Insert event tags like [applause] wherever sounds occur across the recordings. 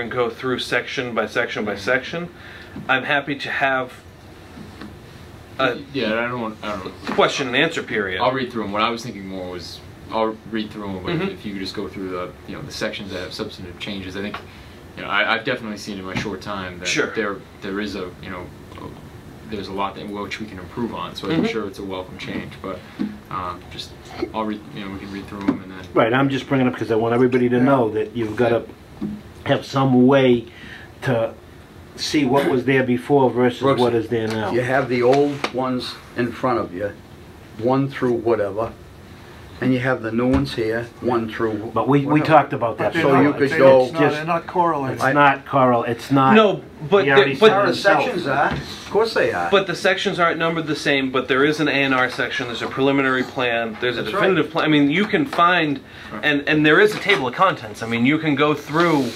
and go through section by section by section. I'm happy to have a yeah, I don't want. I don't. question and answer period. I'll read through them. What I was thinking more was, I'll read through them. But Mhm. if you could just go through the, you know, the sections that have substantive changes, I think, you know, I, I've definitely seen in my short time that Sure. there there is a, you know, a- there's a lot that which we can improve on. So I'm Mhm. sure it's a welcome change. But um, just, I'll read. You know, we can read through them and then. Right, I'm just bringing up because I want everybody to know that you've got to have some way to see what was there before versus Brooks. what is there now. You have the old ones in front of you, one through whatever, and you have the new ones here, one through. But we, we whatever. talk about that. So so you much. could It's go- It's not, just- they're not correlated. It's not, Carl, it's not. no, but We already the, How but, the started. Himself. sections are, of course they are. but the sections aren't numbered the same. But there is an A and R section. There's a preliminary plan. There's a That's right. definitive plan. I mean, you can find, and and there is a table of contents. I mean, you can go through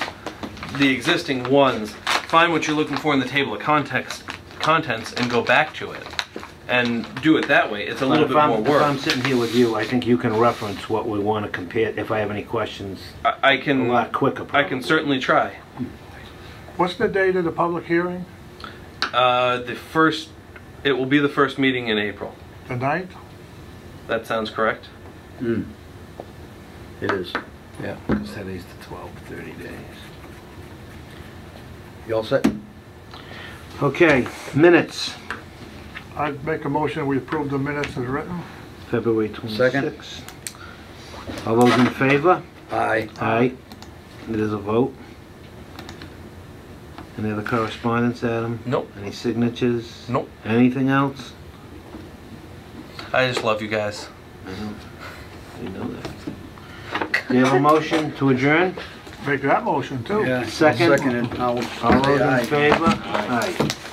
the existing ones, find what you're looking for in the table of context contents, and go back to it, and do it that way. It's a But little if bit I'm, more if I'm work. sitting here with you, I think you can reference what we want to compare, if I have any questions, I, I a can lot quicker. Mm. I can probably. certainly try. What's the date of the public hearing? Uh, the first, it will be the first meeting in April. The ninth? That sounds correct. Mm. It is. Yeah, because today's the 12, 30 days. You all set? Okay, minutes, I'd make a motion, we approve the minutes as written. February Second. 26th. All those in favor? Aye. Aye. It is a vote. Any other correspondence, Adam? Nope. Any signatures? Nope. Anything else? I just love you guys. We know that. Do [laughs] you have a motion to adjourn? Make that motion too. Yeah, I'll Second. Second. it. I'll All those say in aye. favor? Aye.